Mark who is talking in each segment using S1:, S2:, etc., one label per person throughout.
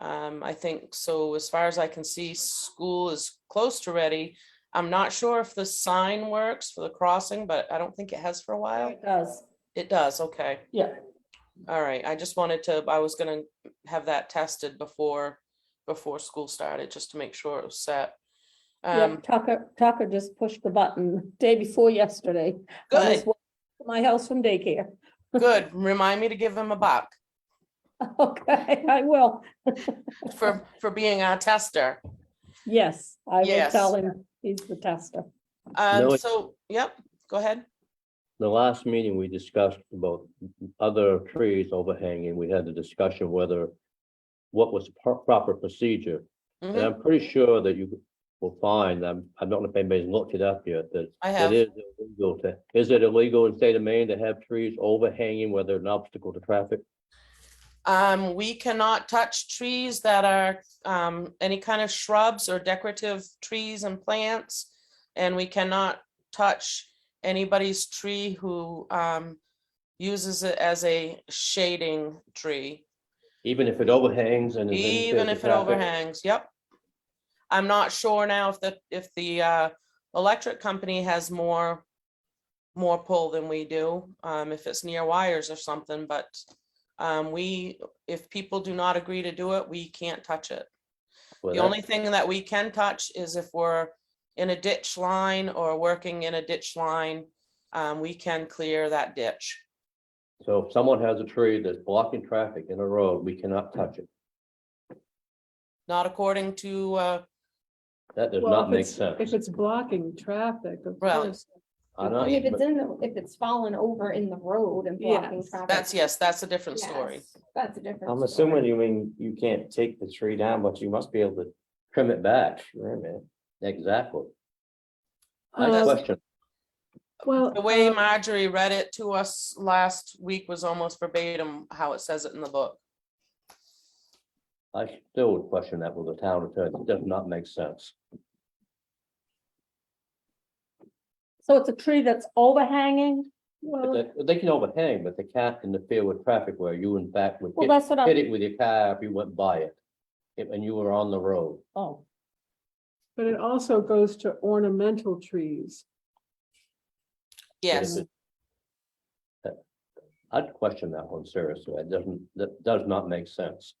S1: Um, I think, so as far as I can see, school is close to ready. I'm not sure if the sign works for the crossing, but I don't think it has for a while.
S2: It does,
S1: It does, okay.
S2: yeah.
S1: All right, I just wanted to, I was gonna have that tested before, before school started, just to make sure it was set.
S2: Yeah,
S1: Um,
S2: Tucker, Tucker just pushed the button day before yesterday. I was
S1: good,
S2: walking to My house from daycare.
S1: good. Remind me to give him a buck
S2: Okay, I will.
S1: for, for being our tester.
S2: Yes, I will
S1: Yes.
S2: tell him he's the tester.
S1: Um,
S3: No.
S1: so, yep, go ahead.
S3: The last meeting, we discussed about other trees overhanging. We had the discussion whether what was pro- proper procedure. And
S1: Mhm,
S3: I'm pretty sure that you will find, I'm, I don't know if anybody's looked it up yet, that
S1: I
S3: it
S1: have,
S3: is illegal to, is it illegal in state of Maine to have trees overhanging, whether an obstacle to traffic?
S1: um, we cannot touch trees that are, um, any kind of shrubs or decorative trees and plants. And we cannot touch anybody's tree who, um, uses it as a shading tree.
S3: Even if it overhangs and. is interferes
S1: Even
S3: with
S1: if it
S3: traffic?
S1: overhangs, yep. I'm not sure now if the, if the uh, electric company has more, more pull than we do, um, if it's near wires or something, but um, we, if people do not agree to do it, we can't touch it.
S3: Well,
S1: The
S3: that's-
S1: only thing that we can touch is if we're in a ditch line or working in a ditch line, um, we can clear that ditch.
S3: So if someone has a tree that's blocking traffic in a road, we cannot touch it.
S1: Not according to, uh,
S3: That does
S4: Well,
S3: not
S4: if
S3: make
S4: it's-
S3: sense.
S4: If it's blocking traffic, of
S1: Well,
S4: course.
S3: I know,
S5: If it's
S3: but
S5: in the, if it's fallen over in the road and blocking
S4: Yes.
S5: traffic.
S1: that's, yes, that's a different story.
S5: yes, That's a different.
S6: I'm
S5: story.
S6: assuming you mean you can't take the tree down, but you must be able to
S3: trim it back,
S6: trim it.
S3: exactly.
S2: Uh,
S3: Nice
S1: does-
S4: Um,
S3: question.
S4: Well,
S1: The way
S4: um,
S1: Marjorie read it to us last week was almost verbatim how it says it in the book.
S3: I still would question that with the town attorney. It does not make sense.
S2: So it's a tree that's overhanging?
S3: If
S4: well,
S3: They they can overhang, but they can't interfere with traffic where you in fact would
S2: Well,
S3: hit-
S2: that's what
S3: hit
S2: I'm,
S3: it with your car if you went by it. if- And you were on the road.
S2: oh,
S4: but it also goes to ornamental trees.
S3: But if
S1: Yes,
S3: it- that- I'd question that one seriously. It doesn't, that does not make sense.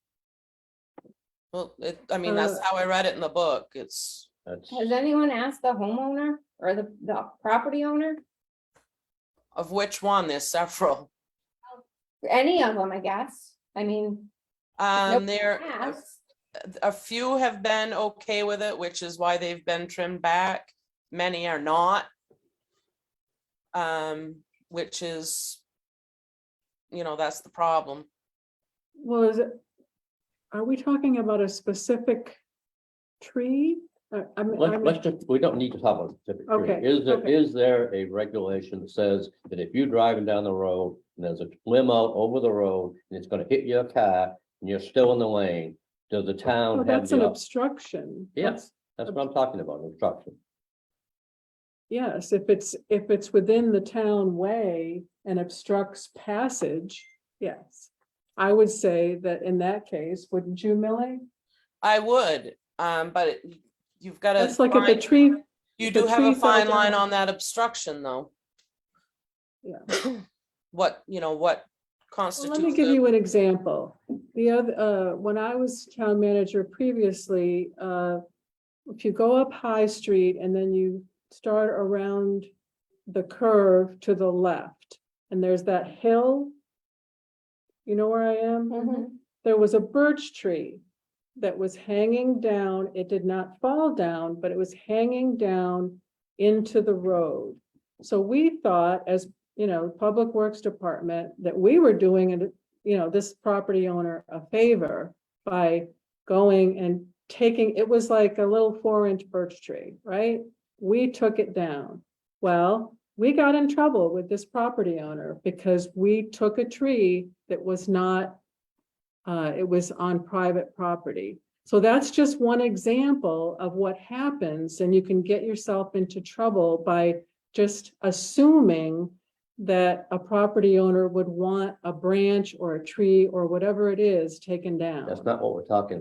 S1: well, it, I mean, that's
S4: Uh,
S1: how I read it in the book. It's,
S3: That's,
S5: Has anyone asked the homeowner or the, the property owner?
S1: of which one, there's several.
S5: Any of them, I guess. I mean. if
S1: Um,
S5: nobody
S1: there, a-
S5: asks,
S1: a few have been okay with it, which is why they've been trimmed back. Many are not. Um, which is, you know, that's the problem.
S4: Well, is it? Are we talking about a specific tree? Uh, I mean, I
S3: let's, let's
S4: mean,
S3: just, we don't need to talk about specific
S4: Okay,
S3: tree. Is there,
S4: okay.
S3: is there a regulation that says that if you're driving down the road and there's a limb out over the road and it's gonna hit your car and you're still in the lane, does the
S4: oh,
S3: town have
S4: that's an
S3: the, op-
S4: obstruction.
S3: Yeah.
S4: That's-
S3: that's what I'm talking about, obstruction.
S4: Yes, if it's, if it's within the town way and obstructs passage, yes. I would say that in that case, wouldn't you, Millie?
S1: I would, um, but it- you've got to.
S4: That's like if the tree,
S1: You
S4: If the
S1: do have a
S4: tree fell
S1: fine line
S4: down-
S1: on that obstruction, though.
S4: Yeah.
S1: What, you know, what
S4: Well, Let me
S1: constitutes
S4: give
S1: a-
S4: you an example. The other, uh, when I was town manager previously, uh, if you go up High Street and then you start around the curve to the left, and there's that hill. You know where I am?
S5: mhm.
S4: there was a birch tree that was hanging down. It did not fall down, but it was hanging down into the road. So we thought as, you know, Public Works Department, that we were doing, it, you know, this property owner a favor by going and taking, it was like a little four-inch birch tree, right? We took it down. Well, we got in trouble with this property owner because we took a tree that was not uh, it was on private property. So that's just one example of what happens and you can get yourself into trouble by just assuming that a property owner would want a branch or a tree or whatever it is taken down.
S3: That's not what we're talking